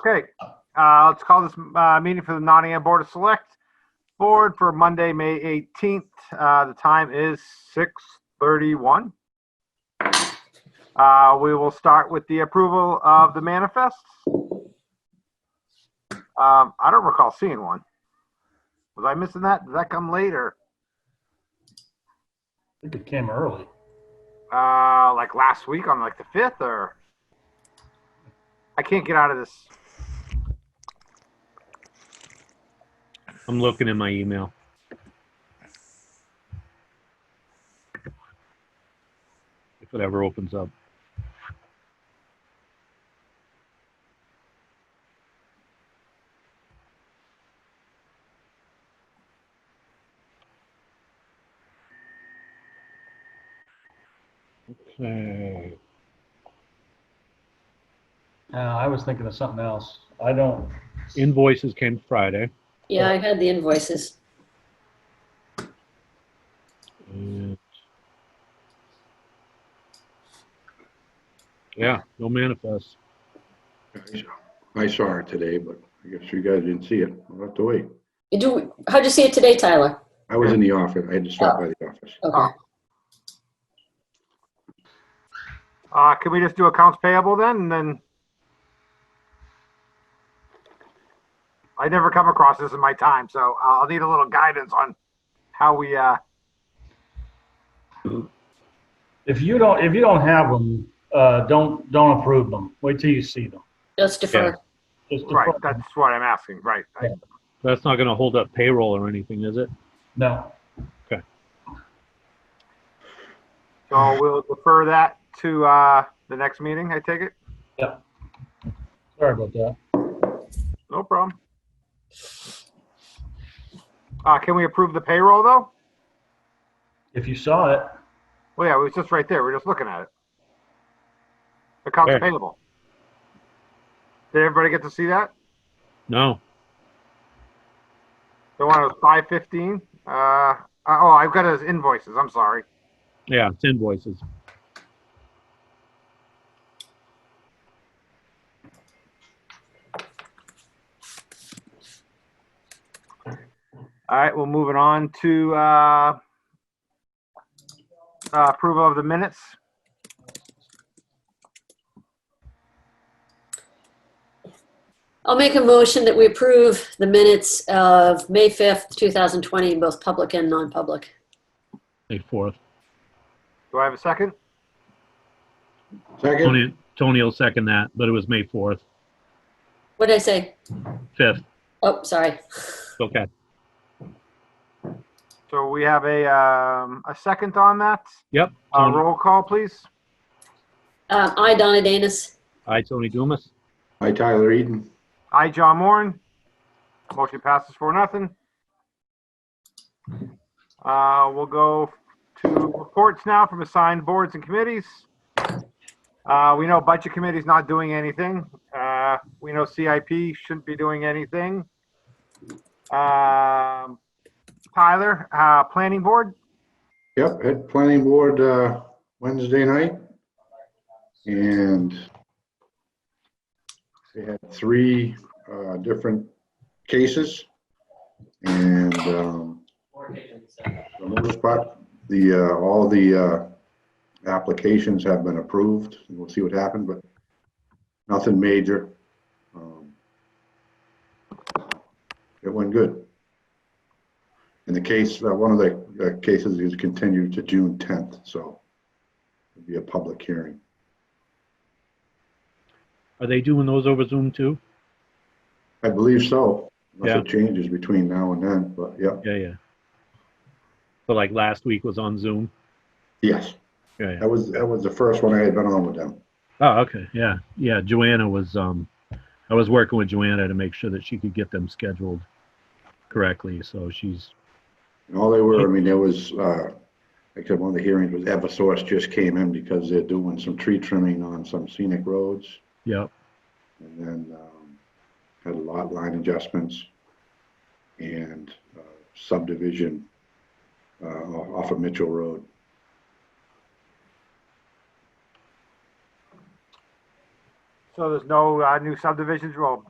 Okay, uh, let's call this uh, meeting for the Nottingham Board of Select Board for Monday, May 18th. Uh, The time is 6:31. Uh, We will start with the approval of the manifests. Um, I don't recall seeing one. Was I missing that? Did that come later? I think it came early. Uh, like last week on like the 5th or? I can't get out of this. I'm looking in my email. If it ever opens up. Okay. Uh, I was thinking of something else. I don't, Invoices came Friday. Yeah, I had the invoices. and- Yeah, no manifest. I saw it today, but I guess you guys didn't see it. I'll have to wait. You do, how'd you see it today, Tyler? I was in the office. I had to stop by the office. Okay. Uh, can we just do accounts payable then, and then? I never come across this in my time, so uh, I'll need a little guidance on how we, uh, if you don't, if you don't have them, uh, don't, don't approve them. Wait till you see them. Just defer. Just right, defer- that's what I'm asking, right. I- That's not gonna hold up payroll or anything, is it? No, So we'll defer that to, uh, the next meeting, I take it? sorry about that. No problem. Uh, can we approve the payroll though? If you saw it, Well, yeah, it was just right there, we we're just looking at it. Accounts Where? payable. Did everybody get to see that? No. The one was five fifteen. Uh, oh, I've got his invoices. I'm sorry. Yeah, it's invoices. All right, well, moving on to uh, uh, approval of the minutes. I'll make a motion that we approve the minutes of May 5th, 2020, in both public and non-public. May fourth. Do I have a second? Second? Tony, Tony will second that, but it was May fourth, What did I say? fifth. Oh, sorry. Okay. So we have a um, a second on that. Yep. Uh, Tony- roll call, please. Um, I, Donna Danus. Hi, Tony Dumas. Hi, Tyler Eden. I, John Moran. Motion passes for nothing. Uh, we'll go to reports now from assigned boards and committees. Uh, we know budget committee's not doing anything. Uh, we know CIP shouldn't be doing anything. Um, Tyler, uh, planning board, Yep, at planning board, uh, Wednesday night. And they had three, uh, different cases. And, um, for the most part, the, uh, all the, uh, applications have been approved. We'll see what happens, but nothing major. Um, It went good. And the case, uh, one of the uh, cases is continued to June 10th, so it'll be a public hearing. Are they doing those over Zoom too? I believe so. Unless it changes between now and then, but yeah, Yeah, yeah. So like last week was on Zoom. yes. Yeah, yeah. That was, that was the first one I had been on with them. Oh, okay. Yeah, yeah. Joanna was, um, I was working with Joanna to make sure that she could get them scheduled correctly. So she's, And all they were, I mean, there was, uh, except one of the hearings was Eversource just came in because they're doing some tree trimming on some scenic roads. yep. And then um, had a lot line adjustments and uh, subdivision uh, off of Mitchell Road. so there's no uh, new subdivisions, well,